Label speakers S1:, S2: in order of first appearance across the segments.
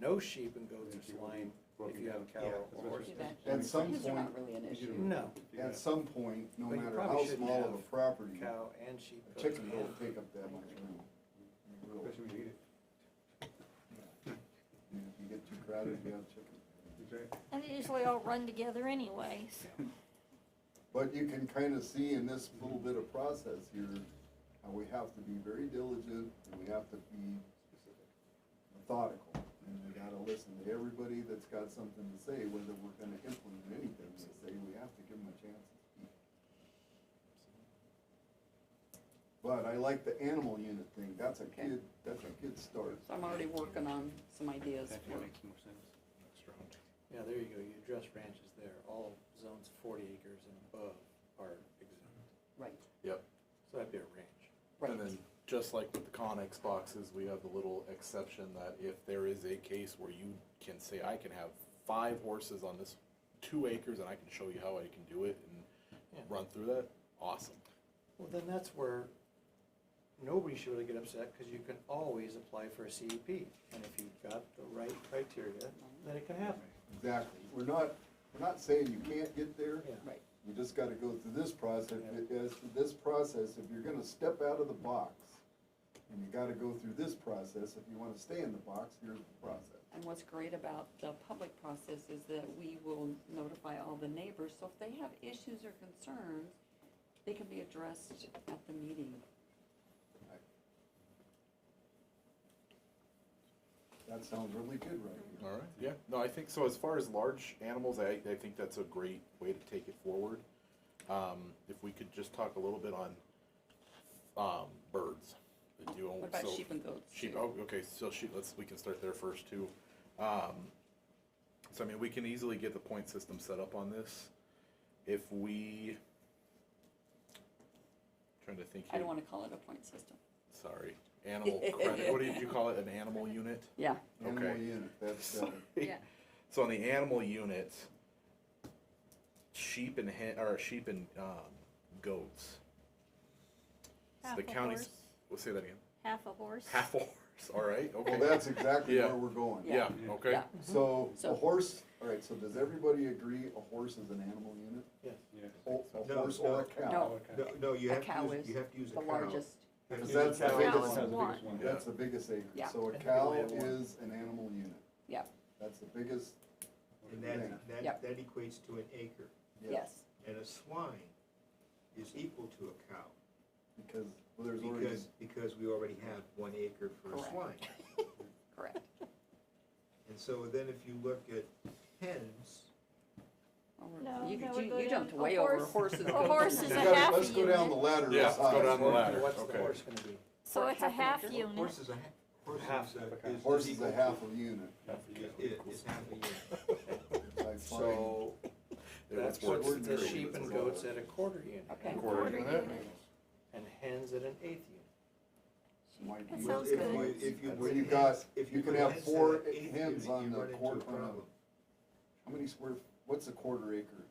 S1: no sheep and goats or swine if you have a
S2: Yeah,
S1: cow
S2: that's
S1: or
S2: what
S1: horse.
S2: she
S3: At
S2: said.
S4: some
S3: These are not
S4: point,
S3: really an
S4: you
S3: issue.
S4: do.
S1: No,
S4: At some point, no
S1: But you
S4: matter
S1: probably
S4: how
S1: shouldn't
S4: small of a
S1: have
S4: property,
S1: cow and sheep.
S4: a
S1: goats,
S4: chicken
S1: and
S4: will take up that much room. It will.
S2: Especially when you eat it.
S4: And If you get too crowded, you have chicken.
S2: That's right.
S5: And they usually all run together anyways.
S4: But you can kind of see in this little bit of process here, how we have to be very diligent, and we have to be methodical. And we gotta listen to everybody that's got something to say, whether we're gonna implement anything they say, we have to give them a chance to speak. But I like the animal unit thing, that's a
S3: Okay.
S4: kid, that's a good start.
S3: So I'm already working on some ideas
S2: That
S3: for
S2: makes more sense.
S1: Yeah, there you go, you address ranches there, all zones forty acres and above are exempt,
S3: Right,
S6: Yep,
S1: so that'd be a ranch.
S3: right.
S6: and then just like with the Conex boxes, we have the little exception that if there is a case where you can say, I can have five horses on this two acres and I can show you how I can do it
S1: Yeah.
S6: and run through that, awesome.
S1: Well, then that's where nobody should really get upset, because you can always apply for a CUP. And if you've got the right criteria, then it can happen.
S4: Exactly, we're not, we're not saying you can't get there.
S1: Yeah.
S3: Right.
S4: You just gotta go through this process,
S1: Yeah.
S4: as to this process, if you're gonna step out of the box, and you gotta go through this process, if you wanna stay in the box, here's the process.
S3: And what's great about the public process is that we will notify all the neighbors, so if they have issues or concerns, they can be addressed at the meeting.
S4: That sounds really good right
S6: All
S4: here.
S6: right, yeah, no, I think, so as far as large animals, I, I think that's a great way to take it forward. Um, if we could just talk a little bit on, um, birds. that you own-
S3: What about
S6: so-
S3: sheep and goats?
S6: Sheep,
S3: too?
S6: oh, okay, so sheep, let's, we can start there first too. Um, so I mean, we can easily get the point system set up on this. If we, trying to think
S3: I
S6: here,
S3: don't wanna call it a point system.
S6: sorry, animal credit, what did you call it, an animal unit?
S3: Yeah,
S4: Animal
S6: Okay.
S4: unit, that's, uh,
S3: yeah,
S6: So on the animal unit, sheep and hen, or sheep and, um, goats. So
S5: Half
S6: the
S5: a
S6: county's,
S5: horse,
S6: we'll say that again,
S5: half a horse.
S6: half a horse, all right, okay.
S4: well, that's exactly
S6: Yeah.
S4: where we're going.
S6: Yeah,
S3: Yeah.
S6: okay.
S3: Yeah.
S4: So, a
S3: So-
S4: horse, all right, so does everybody agree a horse is an animal unit?
S1: Yes.
S2: Yeah.
S3: Oh.
S4: Ho- A
S7: No,
S4: horse or a
S7: no.
S4: cow?
S3: No.
S2: No,
S7: No, No, you
S3: A
S7: have
S3: cow
S7: to use,
S3: is
S7: you have to use a
S3: the
S7: cow.
S3: largest,
S2: You have to
S4: Because
S2: use a
S4: that's the
S2: cow. Cow's
S4: biggest
S2: the
S4: one.
S2: biggest one.
S4: That's the biggest acre.
S3: Yeah.
S4: So a
S1: And
S4: cow
S1: we have one.
S4: is an animal unit.
S3: Yeah.
S4: That's the biggest,
S7: And
S4: Yeah.
S7: that, that,
S3: Yep.
S7: that equates to an acre.
S4: yes,
S3: yes.
S7: And a swine is equal to a cow.
S4: because well, there's already,
S7: Because, because we already have one acre for a
S3: Correct.
S7: swine.
S3: Correct.
S7: And so then if you look at hens,
S3: Or-
S5: No,
S3: You,
S5: that
S3: you-
S5: would go
S3: you
S5: down-
S3: jumped
S5: a
S3: way over
S5: horse-
S3: horses.
S5: a
S3: goats,
S5: horse
S3: and
S5: is
S4: You
S5: a
S3: chickens.
S4: gotta-
S5: half
S4: Let's go down the
S5: unit.
S4: ladder.
S6: Yeah,
S4: of
S6: let's go
S4: size.
S6: down the ladder.
S1: What's the
S6: Okay.
S1: horse gonna be?
S5: So it's a half
S3: Horse.
S5: unit.
S7: horse is a, ha-
S1: Half
S7: horse is
S1: of a
S7: a,
S1: cow.
S7: is. is
S4: Horse is
S7: equal
S4: a
S7: to-
S4: half a unit.
S7: Is, is half a unit.
S4: I find.
S1: So
S6: Yeah,
S1: that's
S6: what's-
S4: what's
S1: the
S4: very-
S1: sheep and goats at a quarter unit.
S3: Okay.
S5: Quarter unit.
S1: And hens at an eighth unit.
S4: might
S5: That
S4: be-
S5: sounds
S7: If you-
S5: good.
S7: If you.
S4: When
S7: put
S4: you
S7: hens-
S4: got-
S7: if
S4: you can
S7: put
S4: have
S7: hens in
S4: four
S7: an eighth
S4: hens
S7: unit,
S4: on
S7: you
S4: the
S7: run into a
S4: court- on a-
S7: problem.
S4: How many square, what's a quarter acre?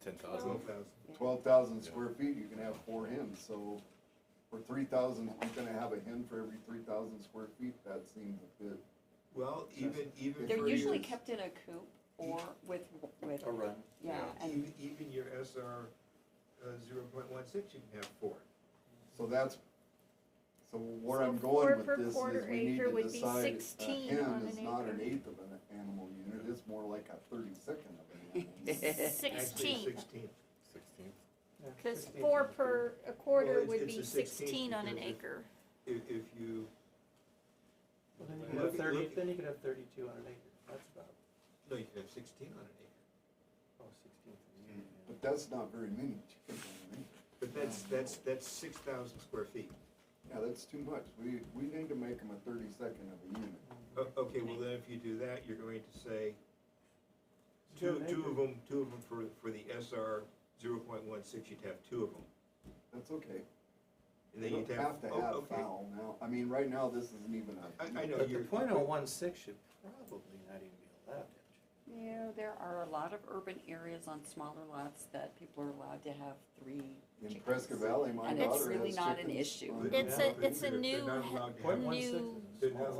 S6: Ten thousand.
S7: Twelve thousand.
S4: Twelve thousand
S6: Yeah.
S4: square feet, you can have four hens, so for three thousand, you're gonna have a hen for every three thousand square feet, that seems a bit.
S7: Well, even, even.
S3: They're
S7: for
S3: usually
S7: your-
S3: kept in a coop or with, with,
S1: A run.
S3: yeah,
S6: Yeah.
S3: and
S7: Even, even your SR zero point one six, you can have four.
S4: So that's, so where
S5: So
S4: I'm
S5: four
S4: going
S5: per
S4: with this is
S5: quarter
S4: we need
S5: acre
S4: to
S5: would be
S4: decide, a
S5: 16
S4: hen
S5: on
S4: is
S5: an
S4: not an
S5: acre.
S4: eighth of an animal unit, it's more like a thirty-second of an animal. unit.
S7: Actually,
S5: Sixteen,
S7: Sixteen.
S6: Sixteen.
S1: Yeah,
S5: because
S1: 16.
S5: four per, a quarter
S7: it's-
S5: would
S7: it's
S5: be
S7: a 16
S5: sixteen on an
S7: because it-
S5: acre.
S7: If, if you,
S1: Well, Then you could have
S7: Look-
S1: thirty,
S7: look-
S1: then you could have thirty-two on an acre, that's about,
S7: no, you can have sixteen on an acre.
S1: oh, sixteen. yeah.
S4: But that's not very many chickens on an acre.
S7: But that's, that's, that's six thousand square feet.
S4: Yeah, that's too much. We, we need to make them a thirty-second of a unit.
S7: O- Okay, well then if you do that, you're going to say,
S1: It's
S7: two,
S1: an
S7: two
S1: acre.
S7: of them, two of them for, for the SR zero point one six, you'd have two of them.
S4: That's okay.
S7: And
S4: We
S7: then
S4: don't
S7: you'd have,
S4: have to
S7: oh,
S4: have
S7: okay.
S4: fowl now. I mean, right now, this isn't even a.
S7: I, I know,
S1: But the
S7: you're.
S1: point oh one six should probably not even be allowed.
S3: Yeah, there are a lot of urban areas on smaller lots that people are allowed to have three
S4: In
S3: chickens.
S4: Prescott Valley, my
S3: And it's
S4: daughter
S3: really
S4: has
S3: not an
S4: chickens
S3: issue.
S4: on-
S5: It's a, it's a
S7: They're
S5: new,
S7: not allowed to have-
S1: Point one six is
S5: new
S1: a small
S7: They're
S1: one.
S7: not